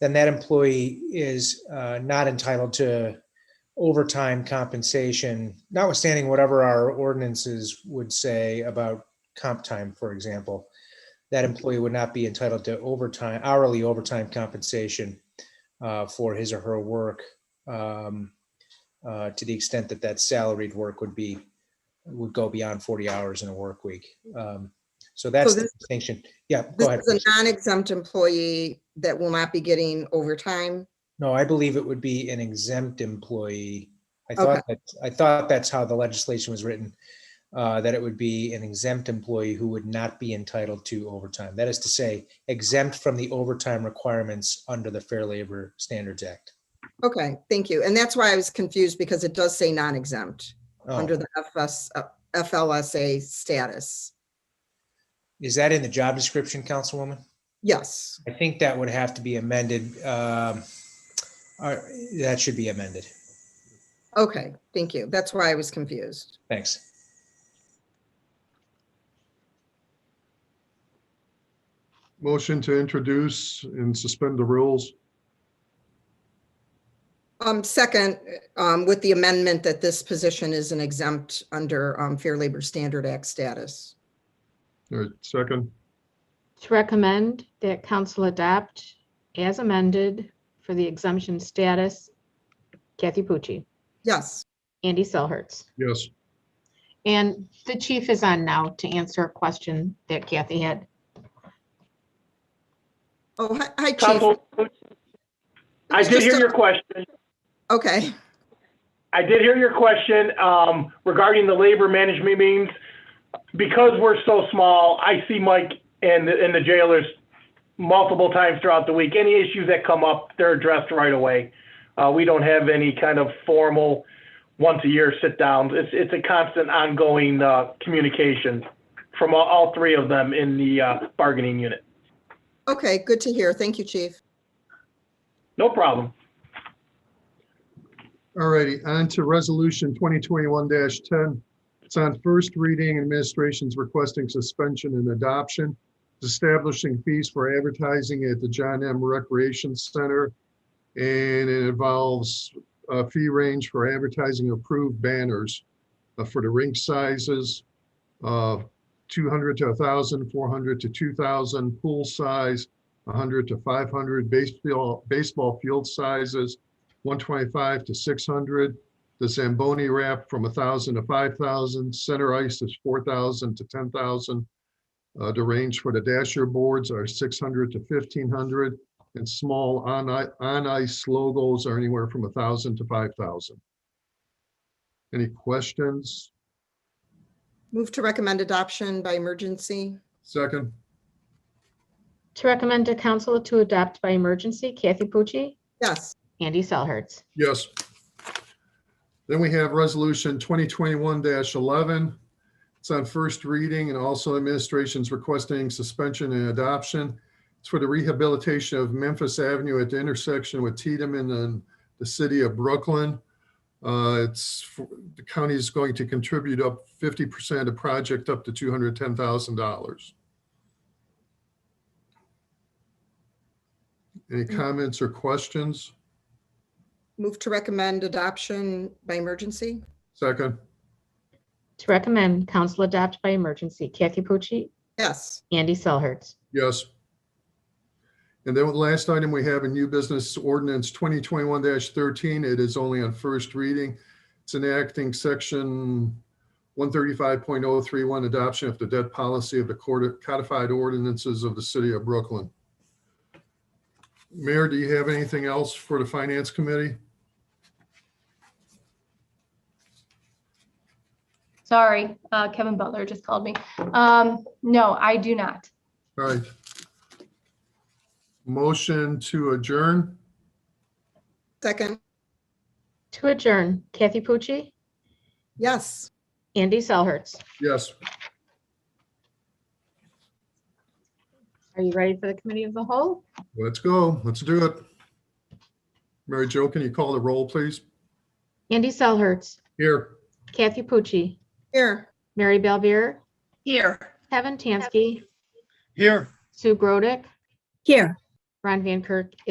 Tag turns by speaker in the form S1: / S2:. S1: then that employee is uh, not entitled to overtime compensation, notwithstanding whatever our ordinances would say about comp time, for example. That employee would not be entitled to overtime, hourly overtime compensation uh, for his or her work um, uh, to the extent that that salaried work would be, would go beyond 40 hours in a work week. Um, So that's the
S2: this-
S1: distinction. Yeah, go ahead.
S2: This is a non-exempt employee that will not be getting overtime.
S1: No, I believe it would be an exempt employee. I
S2: Okay.
S1: thought that, I thought that's how the legislation was written, uh, that it would be an exempt employee who would not be entitled to overtime. That is to say, exempt from the overtime requirements under the Fair Labor Standards Act.
S2: Okay, thank you. And that's why I was confused because it does say non-exempt
S1: Oh,
S2: under the FS, uh, FLSA status.
S1: Is that in the job description, Councilwoman?
S2: Yes,
S1: I think that would have to be amended. um, all right, That should be amended.
S2: okay, thank you. That's why I was confused.
S1: Thanks.
S3: Motion to introduce and suspend the rules.
S2: Um, second, um, with the amendment that this position is an exempt under, um, Fair Labor Standard Act status.
S3: All right, second,
S4: To recommend that council adopt as amended for the exemption status, Kathy Pucci,
S2: Yes,
S4: Andy Selhertz.
S3: yes.
S4: And the chief is on now to answer a question that Kathy had.
S2: oh, hi- hi, Chief.
S5: Council, I did hear your question.
S2: Okay,
S5: I did hear your question um, regarding the labor management meetings. Because we're so small, I see Mike and, the- and the jailers multiple times throughout the week. Any issues that come up, they're addressed right away. Uh, We don't have any kind of formal, once-a-year sit-downs. It's, it's a constant ongoing uh, communication from all, all three of them in the uh, bargaining unit.
S2: okay, good to hear. Thank you, Chief.
S5: No problem.
S3: All righty, on to resolution twenty twenty-one ten. It's on first reading, administration's requesting suspension and adoption, establishing fees for advertising at the John M. Recreation Center. And it involves a fee range for advertising approved banners uh, for the rink sizes, uh, two hundred to a thousand, four hundred to two thousand, pool size, hundred to five hundred, baseball, baseball field sizes, 125 to 600. The Zamboni wrap from 1,000 to 5,000. Center ice is 4,000 to 10,000. Uh, The range for the dasher boards are 600 to 1,500. And small on i- on ice logos are anywhere from 1,000 to 5,000. Any questions?
S2: Move to recommend adoption by emergency.
S3: Second,
S4: To recommend to council to adopt by emergency, Kathy Pucci,
S2: Yes,
S4: Andy Selhertz.
S3: yes. Then we have Resolution 2021-11. It's on first reading and also administration's requesting suspension and adoption. It's for the rehabilitation of Memphis Avenue at the intersection with Tiedemann and the city of Brooklyn. Uh, It's, for- the county is going to contribute up 50% of project up to $210,000. Any comments or questions?
S2: move to recommend adoption by emergency.
S3: Second,
S4: To recommend council adopt by emergency, Kathy Pucci,
S2: Yes,
S4: Andy Selhertz.
S3: yes. And then the last item we have in new business ordinance 2021-13, it is only on first reading. It's enacting section 135.031, adoption of the debt policy of the court- codified ordinances of the city of Brooklyn. Mayor, do you have anything else for the finance committee?
S6: Sorry, uh, Kevin Butler just called me. Um, No, I do not.
S3: All right. Motion to adjourn?
S2: second,
S4: To adjourn, Kathy Pucci,
S2: yes.
S4: Andy Selhertz.
S3: Yes.
S4: Are you ready for the committee of the whole?
S3: Let's go. Let's do it. Mary Jo, can you call the roll, please?
S4: Andy Selhertz,
S3: Here.
S4: Kathy Pucci,
S2: Here,
S4: Mary Belvier. Here. Kevin Tansky. Here. Sue Grodick. Here. Ron Van Kirk